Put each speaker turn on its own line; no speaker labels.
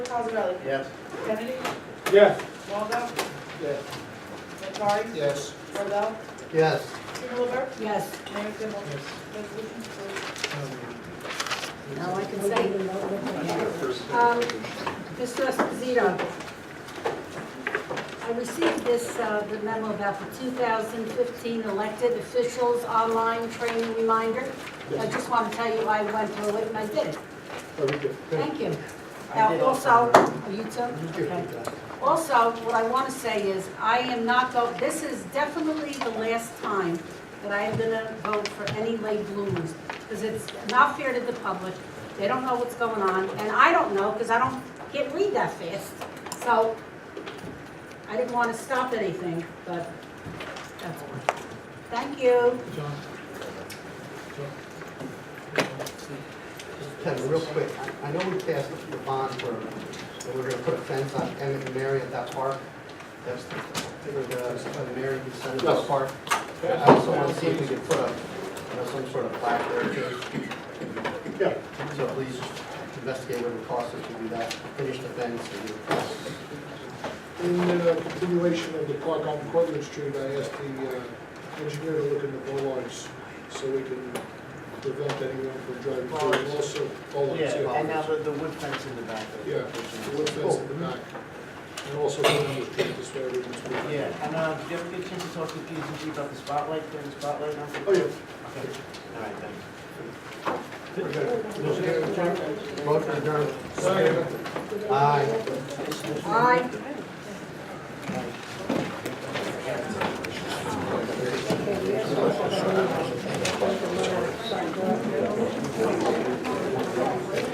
Cosarelli?
Yes.
Kennedy?
Yes.
Longo?
Yes.
Nattari?
Yes.
Robel?
Yes.
Strumelberg?
Yes,
Mayor Kimball? Resolution's approved.
now I can say. Um, Mr. Esposito, I received this, uh, the memo about the 2015 elected officials online training reminder. I just want to tell you, I went through it and I did it. Thank Oh, you. Now, also, are you too? Okay. Also, what I want to say is, I am not go, this is definitely the last time that I am going to vote for any late bloomers, because it's not fair to the public. They don't know what's going on, and I don't know, because I don't get read that fast. So I didn't want to stop anything, but that's all. Thank you.
John.
Kevin, real quick, I I know we passed the bond for, that we're gonna put a fence on Emmett and Mary at that park. That's, figured the, the Mary can send it to the
Yes.
park. I also wanna see if we could put a, you know, some sort of plaque there too.
Yeah.
So please investigate what it costs us to do that, finish the fence and do
In uh, continuation of the park on Cortlandt Street, I asked the uh, engineer to look into bollards so we can prevent anyone from driving through.
Oh,
And also, bollards,
Yeah, and now
yeah.
the, the wood fence in the back. of it.
Yeah, the wood fence in the back. And also, Cortlandt Street, this way everyone's moving.
Yeah, and, uh, did you ever get a chance to talk to P and G about the spotlight, doing the spotlight now?
Oh, yeah.
Okay, all right, thanks.
that. Vote for adjournment.
Second.
Aye.
Aye.